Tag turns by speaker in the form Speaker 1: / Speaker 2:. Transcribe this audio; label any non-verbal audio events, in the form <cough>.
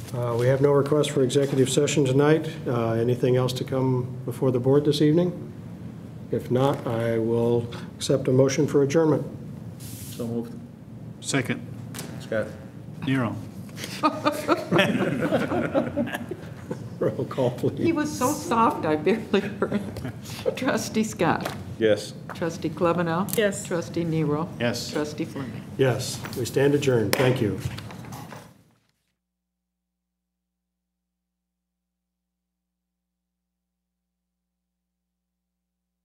Speaker 1: Uh, We have no request for executive session tonight. Uh, Anything else to come before the board this evening? If not, I will accept a motion for adjournment. <laughs>
Speaker 2: So moved.
Speaker 3: Second,
Speaker 2: Scott?
Speaker 3: Nero.
Speaker 1: Roll call,
Speaker 4: He
Speaker 1: please.
Speaker 4: was so soft, I barely heard. Trustee Scott.
Speaker 2: Yes.
Speaker 4: Trustee Klebanow. Yes. Trustee Nero.
Speaker 3: Yes.
Speaker 4: Trustee Fleming.
Speaker 1: Yes, we stand adjourned. Thank you.